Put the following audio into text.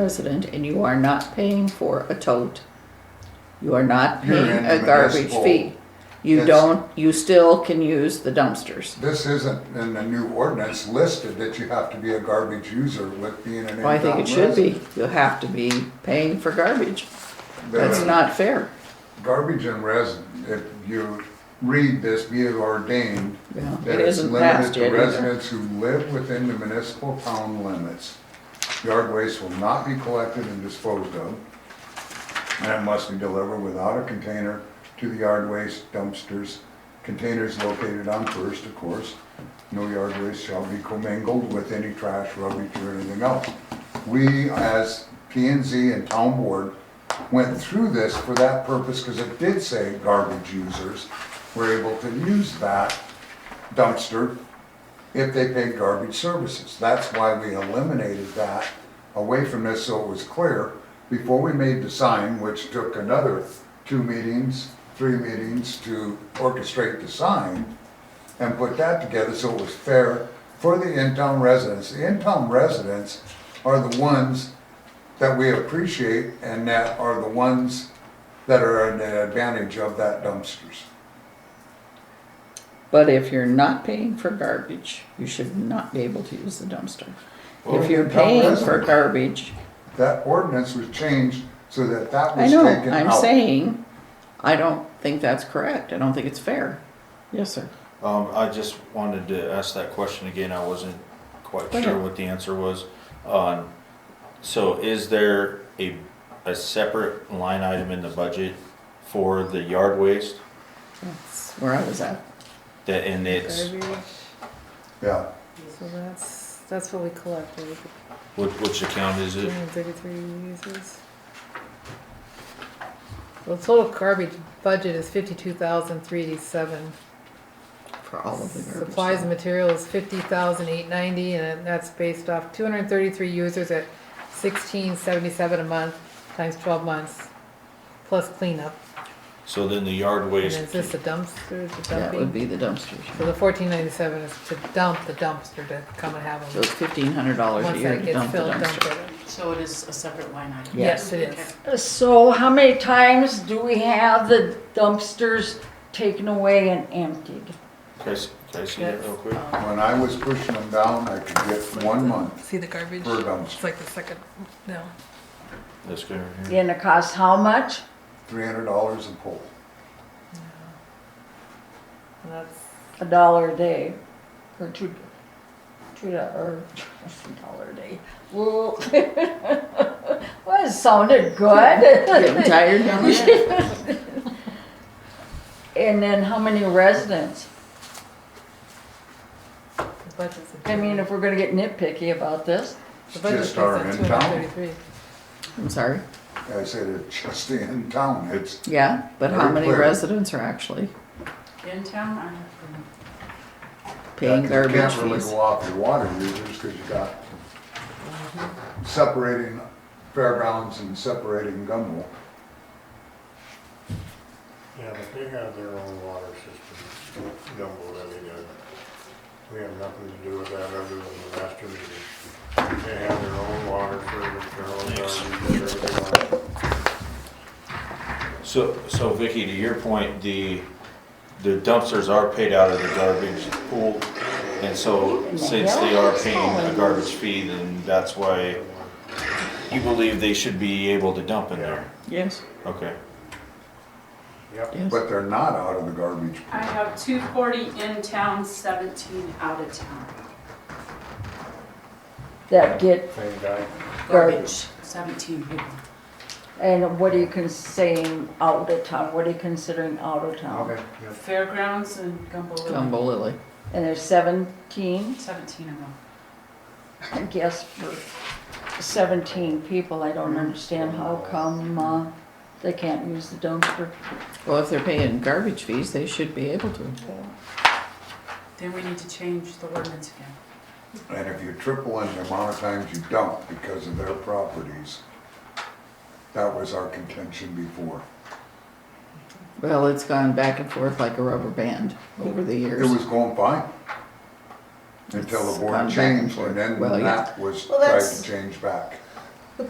resident and you are not paying for a tote, you are not You're paying in a the garbage municipal. fee. You It's- don't, you still can use the dumpsters. This isn't in the new ordinance listed that you have to be a garbage user with being an Well, I think in-town it should be. resident. You have to be paying for garbage. The That's not fair. Garbage and resident, if you read this, be it ordained, Yeah, it that it's isn't limited passed to yet either. residents who live within the municipal town limits. Yard waste will not be collected and disposed of, and it must be delivered without a container to the yard waste dumpsters, containers located on first, of course. No yard waste shall be commingled with any trash, rubbish, or anything else. We, as P and Z and town board, went through this for that purpose, because it did say garbage users were able to use that dumpster if they paid garbage services. That's why we eliminated that away from this, so it was clear. Before we made the sign, which took another two meetings, three meetings to orchestrate the sign and put that together so it was fair for the in-town residents. The in-town residents are the ones that we appreciate and that are the ones that are at an advantage of that dumpsters. But if you're not paying for garbage, you should not be able to use the dumpster. Well, If you're the town paying for resident- garbage, That ordinance was changed so that that I was know, taken out. I'm saying, I don't think that's correct. I don't think it's fair. Yes, sir. Um, I just wanted to ask that question again, I wasn't quite Oh, Go sure ahead. what the answer was. Um, so is there a, a separate line item in the budget for the yard waste? That's where I was at. That, and it's, Garbage. Yeah, So that's, that's what we collect, right? which, which account is Two it? hundred and thirty-three uses. The total garbage budget is fifty-two thousand three eighty-seven. For all of the garbage. Supplies and materials fifty thousand eight ninety, and that's based off two hundred and thirty-three users at sixteen seventy-seven a month, times twelve months, plus cleanup. So then the yard And waste, is this the dumpster, the That would dumping? be the dumpsters. So the fourteen ninety-seven is to dump the dumpster, to come and have So them. it's fifteen hundred dollars a Once year that to gets dump the filled, dump dumpster. it. So it is a separate line item? Yes, it Okay. is. So how many times do we have the dumpsters taken away and emptied? can I, s- can I see that real quick? when I was pushing them down, I could get one month See the garbage? per dumpster, like the second, no. This guy right here? And it costs how much? three hundred dollars a pole. That's, A dollar a day, or two, two, do- or a dollar a day. Well, well, it sounded Getting good. tired down there? And then how many residents? the budget's. a- I mean, if we're gonna get nitpicky about this, The It's just budget's based our on two hundred and in-town. thirty-three. I'm sorry. I said it's just the in-town, it's, Yeah, but how Very many clear. residents are actually In town, I have, paying you garbage can't really fees? go off your water users, cause you got separating fairgrounds and separating Gumbel. Yeah, but they have their own water system, Dumble Levy does. We have nothing to do with that other than the master meeting. They have their own water service, their own garbage, everything on it. So, so Vicky, to your point, the, the dumpsters are paid out of the garbage pool. And so since they are paying a garbage fee, then that's why you believe they should be able to dump in there. Yes, Okay. Yep, yes. But they're not out of the garbage. I have two forty in town, seventeen out of town. that get same guy. garbage. Seventeen people. And what are you considering out of town? What are you considering out of town? Okay, yep. Fairgrounds and Gumbel Lily. Gumbo Lily. And there's seventeen, Seventeen of them. I guess, for seventeen people, I don't understand how come, uh, they can't use the dumpster. Well, if they're paying garbage fees, they should be able to. Then we need to change the ordinance again. And if you triple in the amount of times you dump because of their properties, that was our contention before. Well, it's gone back and forth like a rubber band over the It years. was going fine. Until the It's gone board back and changed, forth. and then Well, yeah. that was Well, tried that's- to change back.